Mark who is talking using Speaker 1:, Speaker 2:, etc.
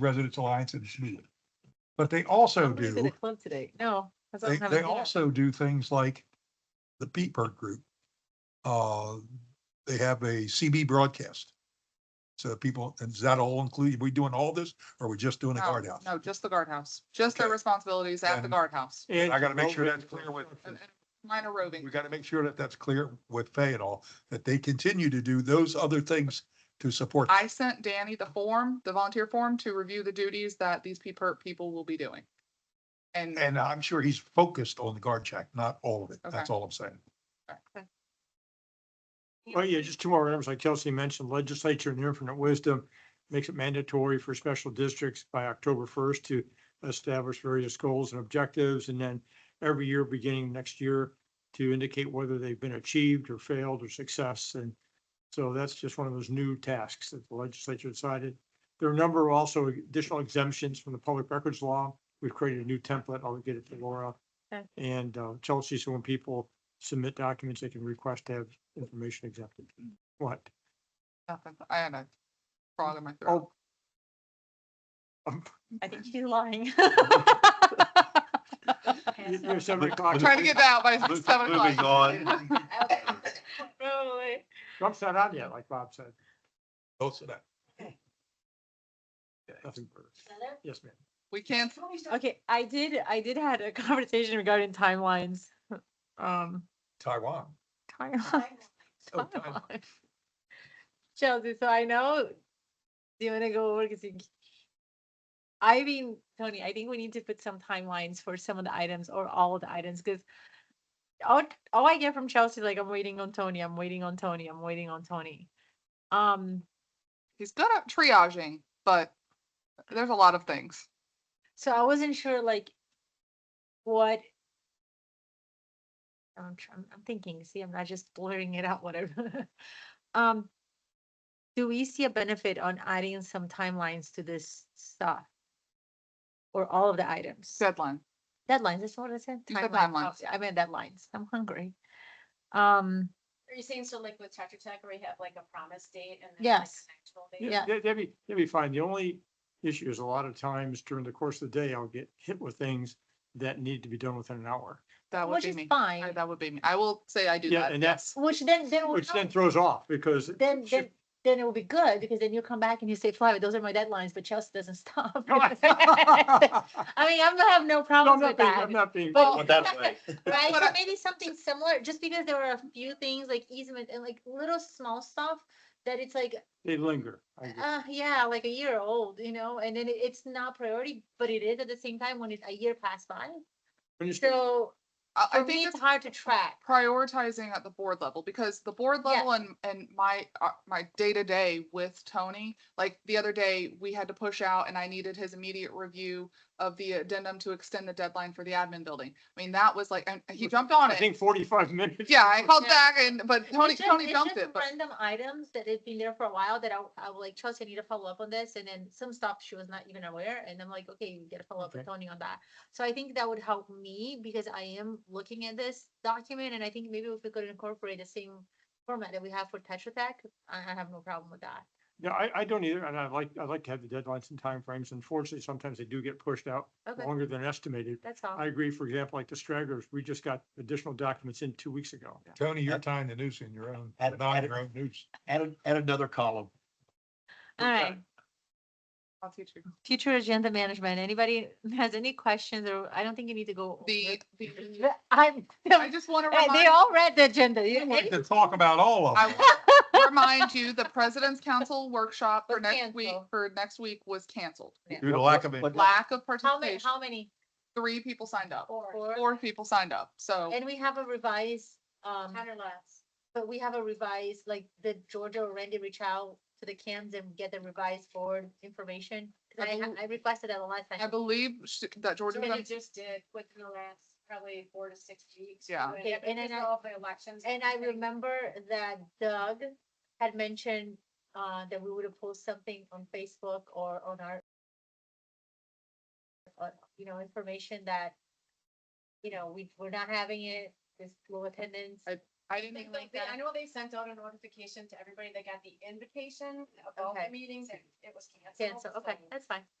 Speaker 1: Residents Alliance and SME. But they also
Speaker 2: Nobody's in the
Speaker 1: do,
Speaker 2: club today. No. 'cause I'm
Speaker 1: they,
Speaker 2: having
Speaker 1: they
Speaker 2: dinner.
Speaker 1: also do things like the Peatburg Group. Uh, they have a CB broadcast. So people, and is that all included? We doing all this or are we just doing the
Speaker 3: No,
Speaker 1: guardhouse?
Speaker 3: Oh, No, just the guardhouse, just their
Speaker 1: Okay.
Speaker 3: responsibilities at the
Speaker 1: Then-
Speaker 3: guardhouse,
Speaker 1: I gotta make sure that's clear with,
Speaker 3: And- and minor
Speaker 1: we
Speaker 3: roving.
Speaker 1: gotta make sure that that's clear with Fay and all, that they continue to do those other things to support.
Speaker 3: I sent Danny the form, the volunteer form, to review the duties that these people, people will be doing. And
Speaker 1: And I'm sure he's focused on the guard check, not all of it. That's
Speaker 3: Okay.
Speaker 1: all I'm saying.
Speaker 4: Well, Oh, yeah, just two more items. Like Kelsey mentioned, legislature in their infinite wisdom makes it mandatory for special districts by October first to establish various goals and objectives, and then every year, beginning next year, to indicate whether they've been achieved or failed or success. And so that's just one of those new tasks that the legislature decided. There are a number of also additional exemptions from the public records law. We've created a new template. I'll get it to Laura.
Speaker 2: Okay.
Speaker 4: And uh, Chelsea, so when people submit documents, they can request to have information exempted. What?
Speaker 3: nothing, I had a frog in my throat.
Speaker 4: Oh,
Speaker 2: I think she's lying.
Speaker 4: you- you're seven o'clock.
Speaker 3: Trying to get that out by seven
Speaker 5: Moving
Speaker 3: o'clock.
Speaker 5: on,
Speaker 2: Probably.
Speaker 4: Trump's not on yet, like Bob said.
Speaker 1: Both of that.
Speaker 4: Nothing further. Yes, ma'am.
Speaker 3: We can't,
Speaker 2: Okay, I did, I did had a conversation regarding timelines. Um,
Speaker 1: Taiwan.
Speaker 2: timeline.
Speaker 1: Oh, timeline.
Speaker 2: timeline. Chelsea, so I know, do you wanna go over, cause you. I mean, Tony, I think we need to put some timelines for some of the items or all of the items, cause. All, all I get from Chelsea, like, I'm waiting on Tony, I'm waiting on Tony, I'm waiting on Tony. Um,
Speaker 3: he's good at triaging, but there's a lot of things.
Speaker 2: so I wasn't sure, like. What? Oh, I'm, tr- I'm I'm thinking, see, I'm not just blurring it out, whatever. Um, do we see a benefit on adding some timelines to this stuff? Or all of the items?
Speaker 3: Deadline,
Speaker 2: Deadlines, that's what I said.
Speaker 3: You said
Speaker 2: timeline, oh,
Speaker 3: timelines.
Speaker 2: I meant deadlines. I'm hungry. Um,
Speaker 6: Are you saying so like with Tetra Tech, where you have like a promise date and? then like an
Speaker 2: Yes.
Speaker 6: actual date?
Speaker 2: Yeah.
Speaker 4: Yeah, that- that'd be, that'd be fine. The only issue is a lot of times during the course of the day, I'll get hit with things that need to be done within an hour.
Speaker 3: that would
Speaker 2: which
Speaker 3: be
Speaker 2: is
Speaker 3: me, I-
Speaker 2: fine,
Speaker 3: that would be me, I will say I do
Speaker 4: Yeah,
Speaker 3: that,
Speaker 4: and that's-
Speaker 3: yes.
Speaker 2: which then, then. we'll
Speaker 4: Which then
Speaker 2: know.
Speaker 4: throws off because,
Speaker 2: then
Speaker 4: Sure.
Speaker 2: then then it will be good because then you come back and you say, Flavia, those are my deadlines, but Chelsea doesn't stop.
Speaker 4: No, I-
Speaker 2: I mean, I'm gonna have no
Speaker 4: No,
Speaker 2: problems
Speaker 4: I'm
Speaker 2: with
Speaker 4: not being, I'm
Speaker 2: that.
Speaker 4: not being,
Speaker 2: But-
Speaker 5: put that way.
Speaker 2: Right,
Speaker 3: But
Speaker 2: so
Speaker 3: I-
Speaker 2: maybe something similar, just because there were a few things like easement and like little small stuff that it's like,
Speaker 4: they linger. I agree.
Speaker 2: uh, yeah, like a year old, you know, and then it- it's not priority, but it is at the same time when it's a year passed by.
Speaker 4: When you start-
Speaker 2: So
Speaker 3: I- I
Speaker 2: for
Speaker 3: think
Speaker 2: me,
Speaker 3: it's
Speaker 2: it's hard to track.
Speaker 3: prioritizing at the board level because the board
Speaker 2: Yeah.
Speaker 3: level and and my uh, my day to day with Tony like the other day we had to push out and I needed his immediate review of the addendum to extend the deadline for the admin building. I mean that was like and he jumped on
Speaker 4: I
Speaker 3: it.
Speaker 4: think forty-five minutes.
Speaker 3: Yeah, I called
Speaker 2: Yeah.
Speaker 3: back and but Tony
Speaker 2: It's just-
Speaker 3: Tony
Speaker 2: it's
Speaker 3: jumped
Speaker 2: just
Speaker 3: it. But
Speaker 2: Random items that had been there for a while that I, I was like, Chelsea, I need to follow up on this, and then some stuff she was not even aware, and I'm like, okay, you gotta follow up with
Speaker 4: Okay.
Speaker 2: Tony on that. So I think that would help me, because I am looking at this document, and I think maybe if we could incorporate the same format that we have for Tetra Tech, I, I have no problem with that.
Speaker 4: Yeah, I, I don't either. And I like, I like to have the deadlines and timeframes. Unfortunately, sometimes they do get pushed out
Speaker 2: Okay,
Speaker 4: longer than estimated.
Speaker 2: that's all.
Speaker 4: I agree, for example, like the stragglers, we just got additional documents in two weeks ago.
Speaker 1: Tony, you're tying the noose in your own,
Speaker 5: Add-
Speaker 1: not
Speaker 5: add-
Speaker 1: your own noose.
Speaker 5: Add, an- add another column.
Speaker 2: All right,
Speaker 3: I'll teach you.
Speaker 2: future agenda management, anybody has any questions, or I don't think you need to go.
Speaker 3: The, the
Speaker 2: over- I'm,
Speaker 3: I just want to
Speaker 2: they
Speaker 3: remind
Speaker 2: all read the agenda. you-
Speaker 1: To talk about all of
Speaker 3: I
Speaker 1: them.
Speaker 3: will remind you the President's Council workshop for
Speaker 2: Was
Speaker 3: next week
Speaker 2: canceled.
Speaker 3: for next week was canceled.
Speaker 1: Due to lack of
Speaker 5: But- but-
Speaker 3: Lack of
Speaker 2: How many,
Speaker 3: participation.
Speaker 2: how many?
Speaker 3: Three people signed up.
Speaker 2: Four.
Speaker 3: Four people signed up. So
Speaker 2: And we have a revised, um,
Speaker 6: Ten or less.
Speaker 2: but we have a revised, like the Georgia or Randy reach out to the cams and get the revised board information. 'Cause
Speaker 3: I
Speaker 2: I,
Speaker 3: believe-
Speaker 2: I requested that a lot.
Speaker 3: I believe sh- that Georgia
Speaker 6: Something
Speaker 3: was on
Speaker 6: you just did within the last probably four to six weeks.
Speaker 3: Yeah.
Speaker 6: doing
Speaker 2: Okay,
Speaker 6: it,
Speaker 2: and then
Speaker 6: because
Speaker 2: I-
Speaker 6: All the elections.
Speaker 2: And I
Speaker 6: everything.
Speaker 2: remember that Doug had mentioned, uh, that we would have posted something on Facebook or on our on, you know, information that, you know, we, we're not having it, this low attendance.
Speaker 3: I
Speaker 6: I
Speaker 3: didn't
Speaker 6: think
Speaker 3: even
Speaker 6: like
Speaker 3: like
Speaker 6: they- I
Speaker 3: that.
Speaker 6: know they sent out a notification to everybody that got the invitation of all
Speaker 2: Okay.
Speaker 6: the meetings and it was canceled.
Speaker 2: Cancel, okay,
Speaker 6: so-
Speaker 2: that's fine.